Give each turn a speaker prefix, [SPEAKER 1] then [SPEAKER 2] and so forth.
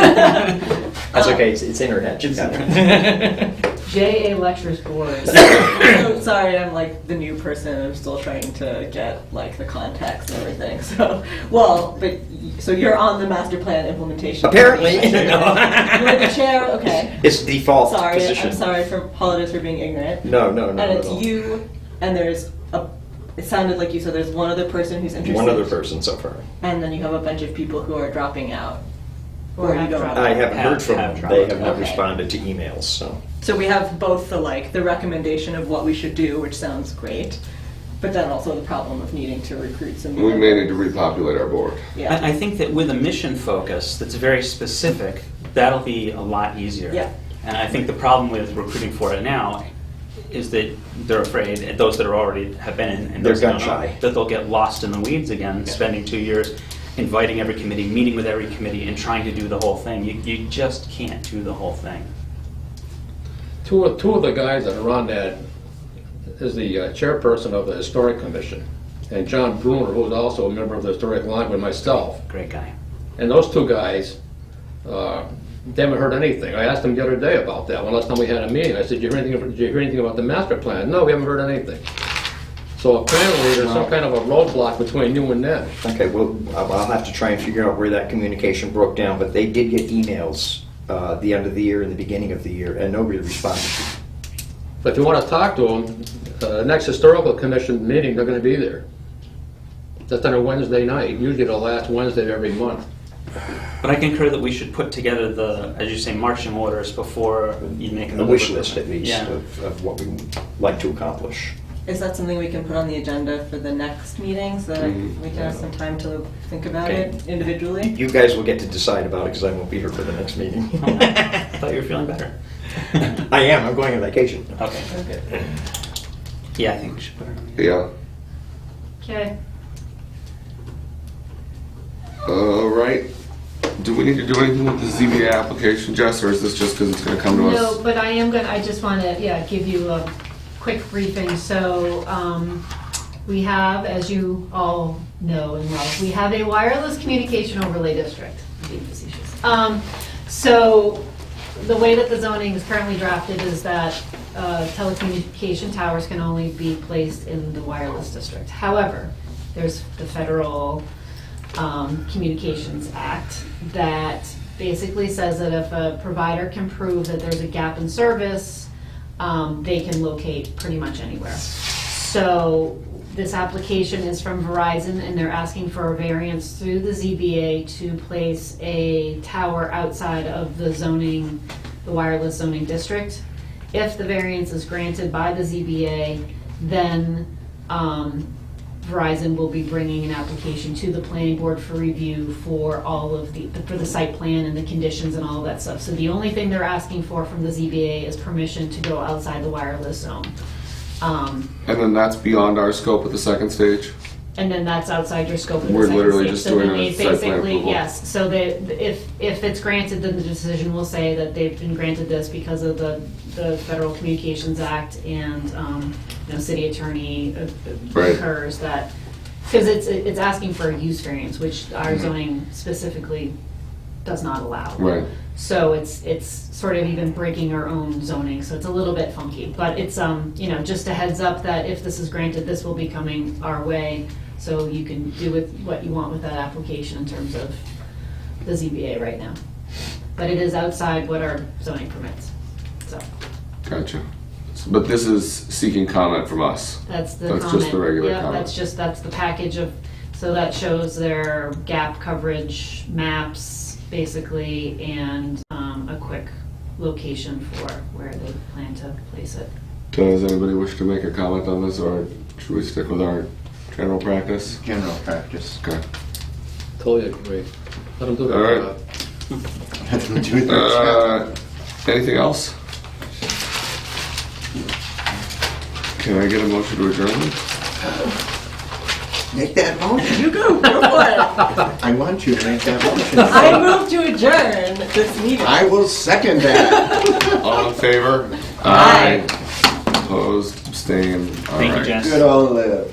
[SPEAKER 1] That's
[SPEAKER 2] Oh. Um,
[SPEAKER 1] okay, it's, it's internet. She's got it.
[SPEAKER 3] JA Lectures Board.
[SPEAKER 2] So, sorry, I'm like the new person. I'm still trying to get like the contacts and everything. So, well, but y- so you're on the master plan implementation.
[SPEAKER 1] Apparently.
[SPEAKER 2] committee. You're the chair. Okay.
[SPEAKER 1] It's default
[SPEAKER 2] sorry,
[SPEAKER 1] position.
[SPEAKER 2] I'm sorry for apologize for being ignorant.
[SPEAKER 1] No, no, no.
[SPEAKER 2] and
[SPEAKER 1] at
[SPEAKER 2] it's
[SPEAKER 1] all.
[SPEAKER 2] you, and there's a. It sounded like you said there's one other person who's interested.
[SPEAKER 1] One other person so far.
[SPEAKER 2] And then you have a bunch of people who are dropping out.
[SPEAKER 3] Or
[SPEAKER 2] Where are you
[SPEAKER 3] have
[SPEAKER 2] going?
[SPEAKER 3] dropped
[SPEAKER 1] I haven't heard
[SPEAKER 4] Have-
[SPEAKER 1] from
[SPEAKER 4] have
[SPEAKER 1] them. They
[SPEAKER 4] trouble.
[SPEAKER 1] have not
[SPEAKER 2] Okay.
[SPEAKER 1] responded to emails, so.
[SPEAKER 2] So we have both the like the recommendation of what we should do, which sounds great, but then also the problem of needing to recruit some. new
[SPEAKER 5] We may need to
[SPEAKER 2] members.
[SPEAKER 5] repopulate our board.
[SPEAKER 2] Yeah.
[SPEAKER 4] I, I think that with a mission focus that's very specific, that'll be a lot easier.
[SPEAKER 2] Yeah.
[SPEAKER 4] And I think the problem with recruiting for it now is that they're afraid, and those that are already have been in, and
[SPEAKER 1] They're
[SPEAKER 4] those that don't
[SPEAKER 1] gun-shy.
[SPEAKER 4] know, that they'll get lost in the weeds again, spending two years inviting every committee, meeting with every committee, and trying to do the whole thing. You, you just can't do the whole thing.
[SPEAKER 6] Two, of- two of the guys that are on that is the uh, chairperson of the Historic Commission, and John Bruner, who's also a member of the Historic Line with myself.
[SPEAKER 4] Great guy.
[SPEAKER 6] And those two guys, uh, they haven't heard anything. I asked them the other day about that, when last time we had a meeting. I said, did you hear anything, did you hear anything about the master plan? No, we haven't heard anything. So apparently, there's some kind of a roadblock between you and them.
[SPEAKER 1] Okay, well, I'll I'll have to try and figure out where that communication broke down, but they did get emails uh, the end of the year and the beginning of the year, and nobody responded.
[SPEAKER 6] But if you want to talk to them, uh, next historical commission meeting, they're going to be there. That's on a Wednesday night, usually the last Wednesday of every month.
[SPEAKER 4] But I concur that we should put together the, as you say, marching orders before you make
[SPEAKER 1] A
[SPEAKER 4] another
[SPEAKER 1] wish list, at
[SPEAKER 4] commitment.
[SPEAKER 1] least, of
[SPEAKER 4] Yeah.
[SPEAKER 1] of what we would like to accomplish.
[SPEAKER 2] Is that something we can put on the agenda for the next meeting so that
[SPEAKER 5] Mm-hmm.
[SPEAKER 2] we can have some time to think about
[SPEAKER 1] Okay.
[SPEAKER 2] it individually?
[SPEAKER 1] You guys will get to decide about it, because I won't be here for the next meeting.
[SPEAKER 4] Oh, I thought you were feeling better.
[SPEAKER 1] I am, I'm going on vacation.
[SPEAKER 4] Okay. Yeah, I think we should put it on. there.
[SPEAKER 5] Yeah.
[SPEAKER 3] Okay.
[SPEAKER 5] All Uh, right. Do we need to do anything with the ZBA application, Jess, or is this just because it's going to come to us?
[SPEAKER 3] No, but I am gonna, I just wanna, yeah, give you a quick briefing. So, um, we have, as you all know and love, we have a wireless communication overlay district. I'm being facetious. Um, so, the way that the zoning is currently drafted is that uh, telecommunication towers can only be placed in the wireless district. However, there's the federal um, Communications Act that basically says that if a provider can prove that there's a gap in service, um, they can locate pretty much anywhere. So this application is from Verizon, and they're asking for a variance through the ZBA to place a tower outside of the zoning, the wireless zoning district. If the variance is granted by the ZBA, then um, Verizon will be bringing an application to the planning board for review for all of the, for the site plan and the conditions and all of that stuff. So the only thing they're asking for from the ZBA is permission to go outside the wireless zone. Um,
[SPEAKER 5] And then that's beyond our scope at the second stage?
[SPEAKER 3] and then that's outside your scope of the
[SPEAKER 5] We're
[SPEAKER 3] second
[SPEAKER 5] literally
[SPEAKER 3] stage.
[SPEAKER 5] just
[SPEAKER 3] So then
[SPEAKER 5] doing a
[SPEAKER 3] they
[SPEAKER 5] site plan
[SPEAKER 3] basically-
[SPEAKER 5] approval.
[SPEAKER 3] Yes, so they, if, if it's granted, then the decision will say that they've been granted this because of the, the Federal Communications Act and, um, you know, city attorney uh, uh,
[SPEAKER 5] Right.
[SPEAKER 3] occurs that, because it's, it's asking for a use variance, which our zoning specifically does not allow.
[SPEAKER 5] Mm-hmm. Right.
[SPEAKER 3] So it's, it's sort of even breaking our own zoning, so it's a little bit funky. But it's, um, you know, just a heads up that if this is granted, this will be coming our way. So you can do with what you want with that application in terms of the ZBA right now. But it is outside what our zoning permits. So
[SPEAKER 5] Gotcha. S- But this is seeking comment from us.
[SPEAKER 3] that's the comment.
[SPEAKER 5] That's just the regular
[SPEAKER 3] Yeah,
[SPEAKER 5] comment.
[SPEAKER 3] that's just, that's the package of, so that shows their gap coverage maps, basically, and um, a quick location for where they plan to place it.
[SPEAKER 5] Does anybody wish to make a comment on this, or should we stick with our general practice?
[SPEAKER 7] general practice.
[SPEAKER 5] Okay.
[SPEAKER 6] Totally agree. Let them do
[SPEAKER 5] All
[SPEAKER 6] their
[SPEAKER 5] right.
[SPEAKER 6] job.
[SPEAKER 7] Nothing to do with their job.
[SPEAKER 5] Uh, anything else? Can I get a motion to adjourn?
[SPEAKER 7] Make that motion.
[SPEAKER 2] You go. Go for it.
[SPEAKER 7] I want you to make that motion.
[SPEAKER 2] I move to adjourn this meeting.
[SPEAKER 7] I will second that.
[SPEAKER 5] All in favor?
[SPEAKER 2] Aye.
[SPEAKER 5] Opposed, abstained. All
[SPEAKER 4] Thank you,
[SPEAKER 5] right.
[SPEAKER 4] Jess.
[SPEAKER 7] Good old Liv.